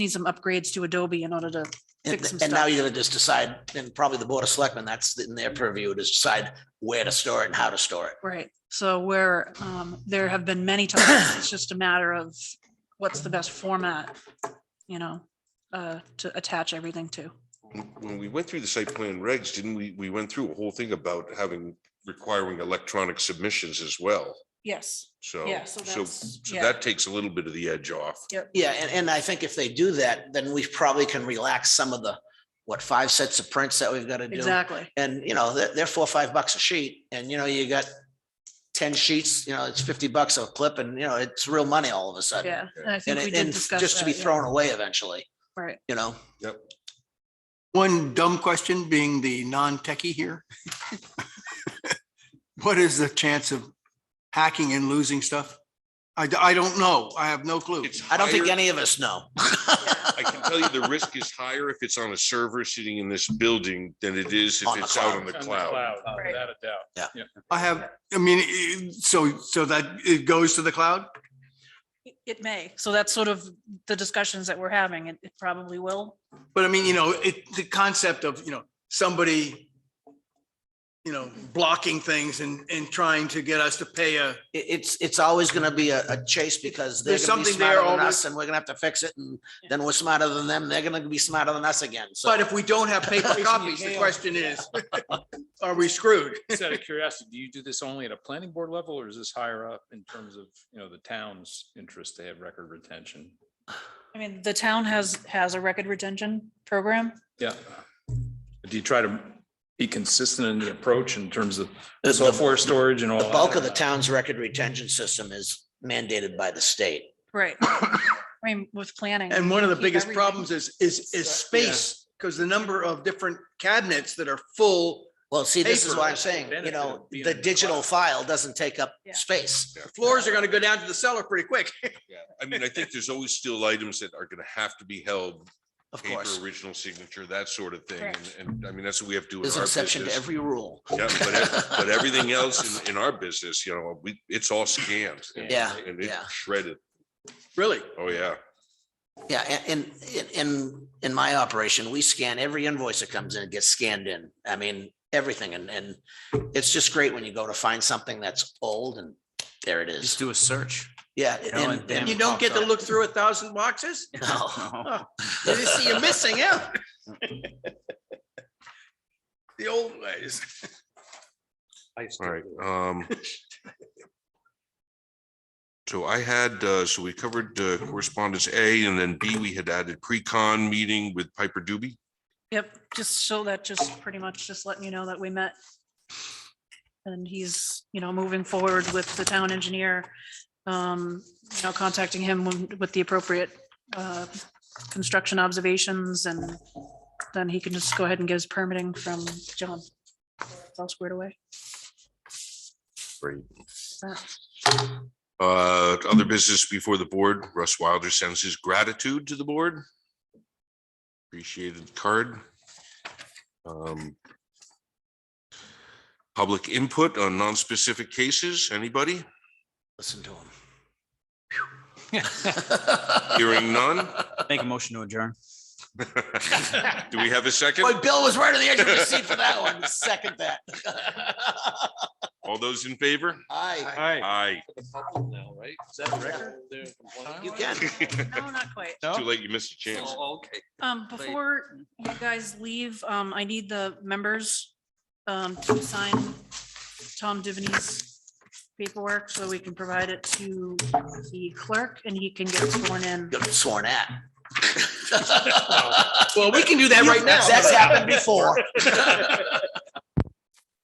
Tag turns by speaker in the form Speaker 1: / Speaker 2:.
Speaker 1: need some upgrades to Adobe in order to, Fix some
Speaker 2: And and now
Speaker 1: stuff.
Speaker 2: you're gonna just decide, and probably the board of selectmen, that's in their purview, to decide where to store it and how to store it.
Speaker 1: right? So where, um, there have been many times, it's just a matter of what's the best format, you know, uh, to attach everything to.
Speaker 3: When- When we went through the site plan regs, didn't we, we went through a whole thing about having, requiring electronic submissions as well.
Speaker 1: Yes.
Speaker 3: So,
Speaker 1: Yeah, so
Speaker 3: so,
Speaker 1: that's-
Speaker 3: so
Speaker 1: yeah.
Speaker 3: that takes a little bit of the edge off.
Speaker 2: Yeah, and, and I think if they do that, then we probably can relax some of the, what, five sets of prints that we've got to do?
Speaker 1: Exactly.
Speaker 2: And, you know, they're, they're four, or five bucks a sheet, and, you know, you got ten sheets, you know, it's fifty bucks a clip, and, you know, it's real money all of a sudden.
Speaker 1: Yeah. And I think
Speaker 2: Uh, And,
Speaker 1: we
Speaker 2: it-
Speaker 1: did
Speaker 2: and
Speaker 1: discuss
Speaker 2: just to
Speaker 1: that,
Speaker 2: be
Speaker 1: yeah.
Speaker 2: thrown away eventually,
Speaker 1: Right.
Speaker 2: you know?
Speaker 4: One dumb question being the non-techie here. What is the chance of hacking and losing stuff? I, d- I don't know. I have no clue.
Speaker 3: It's
Speaker 2: I don't think
Speaker 3: higher-
Speaker 2: any of us know.
Speaker 3: I can tell you the risk is higher if it's on a server sitting in this building than it is if
Speaker 2: On the
Speaker 3: it's out
Speaker 2: cloud.
Speaker 3: on the cloud.
Speaker 5: Without a doubt.
Speaker 4: I have, I mean, i- so, so that it goes to the cloud?
Speaker 1: It- It may. So that's sort of the discussions that we're having. It, it probably will.
Speaker 4: But I mean, you know, it, the concept of, you know, somebody, you know, blocking things and, and trying to get us to pay a,
Speaker 2: It, it's, it's always gonna be a, a chase because they're
Speaker 4: There's
Speaker 2: gonna be
Speaker 4: something there
Speaker 2: smarter than
Speaker 4: always-
Speaker 2: us and we're gonna have to fix it and then we're smarter than them. They're gonna be smarter than us again. So
Speaker 4: but if we don't have paper copies, the question is, are we screwed?
Speaker 5: Just out of curiosity, do you do this only at a planning board level or is this higher up in terms of, you know, the town's interest to have record retention?
Speaker 1: I mean, the town has, has a record retention program.
Speaker 5: Yeah. Do you try to be consistent in the approach in terms of
Speaker 2: the-
Speaker 5: software storage and all?
Speaker 2: The
Speaker 5: that?
Speaker 2: bulk of the town's record retention system is mandated by the state.
Speaker 1: Right. I mean, with planning.
Speaker 4: And one of the
Speaker 1: keep
Speaker 4: biggest
Speaker 1: everything.
Speaker 4: problems is, is, is space, because the number of different cabinets that are full,
Speaker 2: Well, see, this is
Speaker 4: Paper
Speaker 2: what I'm
Speaker 5: is
Speaker 2: saying,
Speaker 5: the
Speaker 2: you
Speaker 5: benefit
Speaker 2: know,
Speaker 5: of being
Speaker 2: the
Speaker 5: in the
Speaker 2: digital file doesn't take up
Speaker 1: Yeah.
Speaker 2: space.
Speaker 4: floors are gonna go down to the cellar pretty quick.
Speaker 3: Yeah, I mean, I think there's always still items that are gonna have to be held,
Speaker 2: Of
Speaker 3: paper,
Speaker 2: course,
Speaker 3: original signature, that sort of thing.
Speaker 1: Correct.
Speaker 3: And, and I mean, that's what we have to do. in
Speaker 2: there's
Speaker 3: our
Speaker 2: an exception to
Speaker 3: business.
Speaker 2: every rule.
Speaker 3: Yeah, but, ev- but everything else in, in our business, you know, we, it's all scanned. and-
Speaker 2: Yeah,
Speaker 3: And it's
Speaker 2: yeah.
Speaker 3: shredded.
Speaker 4: Really?
Speaker 3: Oh, yeah.
Speaker 2: Yeah, a- and in, in, in my operation, we scan every invoice that comes in, it gets scanned in. I mean, everything. And, and it's just great when you go to find something that's old and there it
Speaker 6: Just
Speaker 2: is.
Speaker 6: do a search.
Speaker 2: Yeah.
Speaker 6: know,
Speaker 2: and-
Speaker 6: and-
Speaker 4: You
Speaker 2: and-
Speaker 4: don't get to look through a thousand boxes?
Speaker 2: no.
Speaker 4: You just see you're missing out. The old ways.
Speaker 3: All right, um. So I had, uh, so we covered uh, correspondence A and then B, we had added pre-con meeting with Piper Doobie.
Speaker 1: Yep, just so that just pretty much just letting you know that we met. And he's, you know, moving forward with the town engineer, um, you know, contacting him when- with the appropriate uh, construction observations and then he can just go ahead and get his permitting from John. It's All squared away.
Speaker 3: Great.
Speaker 1: That-
Speaker 3: Uh, other business before the board, Russ Wilder sends his gratitude to the board. Appreciated card. Um. Public input on non-specific cases, anybody?
Speaker 2: Listen to him.
Speaker 3: Hearing none?
Speaker 6: Make a motion to adjourn.
Speaker 3: Do we have a second?
Speaker 2: Boy, Bill was right on the edge of his seat for that one. Second that.
Speaker 3: All those in favor?
Speaker 2: Aye.
Speaker 3: Aye.
Speaker 2: You can.
Speaker 1: No, not quite.
Speaker 3: Too late, you missed a chance.
Speaker 1: Um, before you guys leave, um, I need the members, um, to sign Tom Divany's paperwork so we can provide it to the clerk and he can get sworn in.
Speaker 2: You're sworn at.
Speaker 4: Well, we can do that right now.
Speaker 2: That's happened before.